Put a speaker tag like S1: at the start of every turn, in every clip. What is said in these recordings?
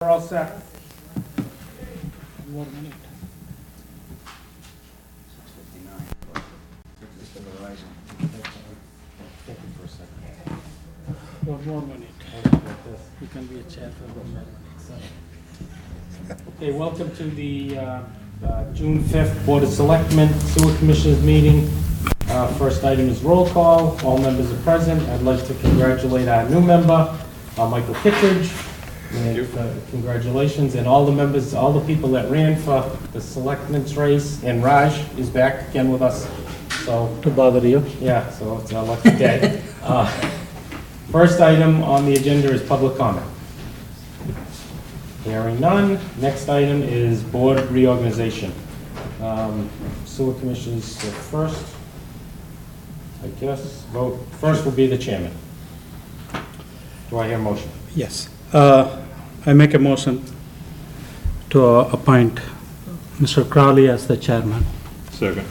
S1: all set.
S2: Six fifty-nine. Mr. Verizon.
S3: Thank you for a second.
S1: One more minute.
S3: I'll just like this.
S1: You can be a chair for one more minute. Okay, welcome to the uh, uh, June 5th Board of Selectmen Sewer Commissioners Meeting. Uh, First item is roll call. All members are present. I'd like to congratulate our new member, uh, Michael Kittredge. And, uh, Congratulations, and all the members, all the people that ran for the selectmen's race, and Raj is back again with us. So
S4: to bother you.
S1: Yeah, so it's a lucky day. Uh, First item on the agenda is public comment. Hearing none. Next item is board reorganization. Um, Sewer commissioners are first, I guess, vote, first will be the chairman. Do I hear a motion?
S4: Yes. Uh, I make a motion to uh, appoint Mr. Crowley as the chairman.
S5: Second.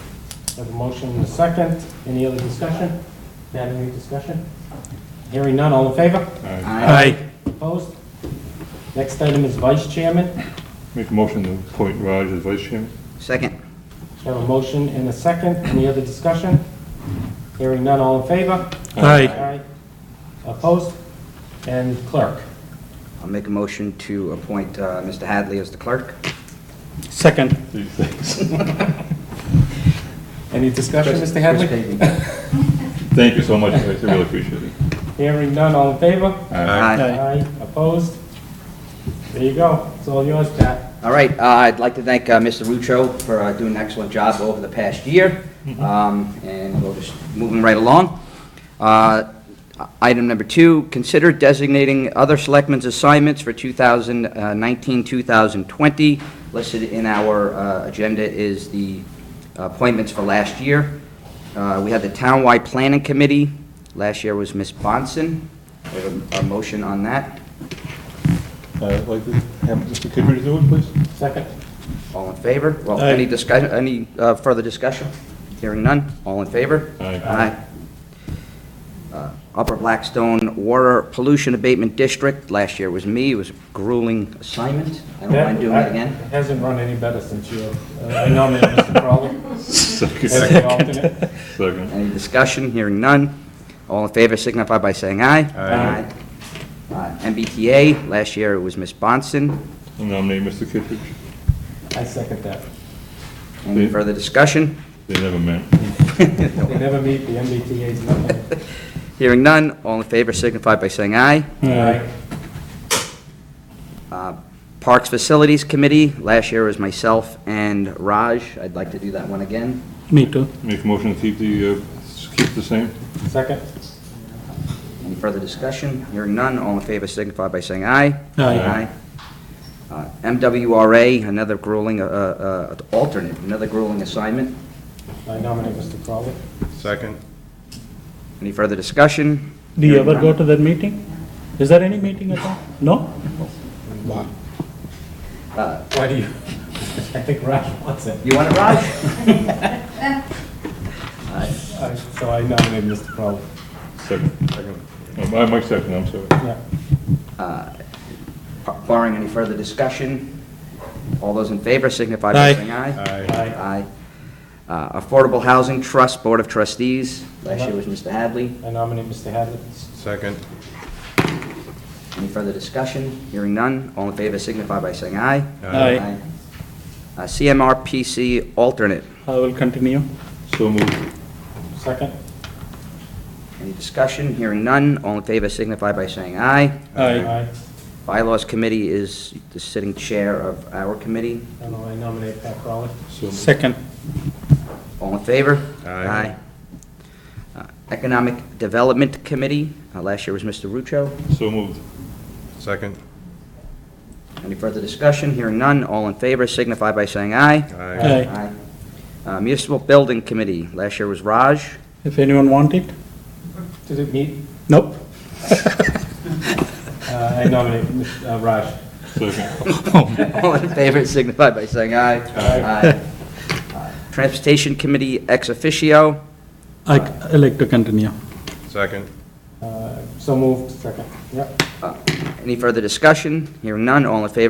S1: Have a motion and a second. Any other discussion? Have any discussion? Hearing none, all in favor?
S5: I
S2: Aye.
S1: Opposed? Next item is vice chairman.
S5: Make a motion to appoint Raj as vice chairman.
S2: Second.
S1: We have a motion and a second. Any other discussion? Hearing none, all in favor?
S4: Aye.
S1: Opposed? And clerk?
S2: I'll make a motion to appoint uh, Mr. Hadley as the clerk.
S4: Second.
S5: These things.
S1: Any discussion, Mr.
S2: Chris
S1: Hadley?
S2: Pavey.
S5: Thank you so much, I really appreciate it.
S1: Hearing none, all in favor?
S2: Aye.
S1: Opposed? There you go. It's all yours, Pat.
S2: All right, uh, I'd like to thank uh, Mr. Rucho for uh, doing an excellent job over the past year, Um, and we'll just move him right along. Uh, Item number two, consider designating other selectmen's assignments for uh, 2019, 2020. Listed in our uh, agenda is the appointments for last year. Uh, We had the Townwide Planning Committee, last year was Ms. Bonson. We have a- a motion on that.
S5: Uh, I'd like to have Mr. Kidry do it, please.
S1: Second.
S2: All in favor? Well, any discussion, any uh, further discussion? Hearing none, all in favor?
S5: Aye.
S2: Uh, Upper Blackstone Water Pollution Abatement District, last year was me, it was a grueling assignment. I don't mind doing it again.
S1: Hasn't run any better since you, uh, I nominated Mr. Crowley as
S5: Second.
S1: the alternate.
S5: Second.
S2: Any discussion? Hearing none, all in favor signify by saying aye.
S1: Aye.
S2: Aye. Uh, MBTA, last year it was Ms. Bonson.
S5: Nominate Mr. Kidry.
S1: I second that.
S2: Any
S5: Hmm.
S2: further discussion?
S5: They never met.
S1: They never meet, the MBTA's nothing.
S2: Hearing none, all in favor signify by saying aye.
S1: Aye.
S2: Uh, Parks Facilities Committee, last year was myself and Raj. I'd like to do that one again.
S4: Me too.
S5: Make a motion to keep the, uh, keep the same.
S1: Second.
S2: Any further discussion? Hearing none, all in favor signify by saying aye.
S4: Aye.
S2: Uh, MWRA, another grueling, uh, uh, alternate, another grueling assignment.
S1: I nominate Mr. Crowley.
S6: Second.
S2: Any further discussion?
S4: Do you
S2: Hearing
S4: ever go
S2: none.
S4: to that meeting? Is there any meeting at all? No?
S2: Uh,
S1: Why do you? I think Raj wants it.
S2: You want it, Raj?
S1: I- So I nominate Mr. Crowley.
S5: Second. Um, I Mike second, I'm sorry.
S1: Yeah.
S2: Barring any further discussion, all those in favor signify by
S4: Aye.
S2: saying aye.
S6: Aye.
S1: Aye.
S2: Uh, Affordable Housing Trust Board of Trustees, last year was Mr. Hadley.
S1: I nominate Mr. Hadley.
S6: Second.
S2: Any further discussion? Hearing none, all in favor signify by saying aye.
S4: Aye.
S2: Uh, CMRPC alternate,
S4: I will continue.
S5: So moved.
S1: Second.
S2: any discussion? Hearing none, all in favor signify by saying aye.
S4: Aye.
S2: Bylaws Committee is the sitting chair of our committee,
S1: And I nominate Pat Crowley.
S5: So moved.
S4: Second.
S2: all in favor?
S6: Aye.
S2: Aye. Uh, Economic Development Committee, uh, last year was Mr. Rucho.
S5: So moved.
S6: Second.
S2: Any further discussion? Hearing none, all in favor signify by saying aye.
S6: Aye.
S4: Aye.
S2: Uh, Municipal Building Committee, last year was Raj.
S4: If anyone want it?
S1: Did it meet?
S4: Nope.
S1: Uh, I nominate Mr. uh, Raj.
S5: Second.
S2: All in favor signify by saying aye. Aye. Transportation Committee ex officio,
S4: I c- I like to continue.
S6: Second.
S1: Uh, So moved. Second. Yep.
S2: any further discussion? Hearing none, all in favor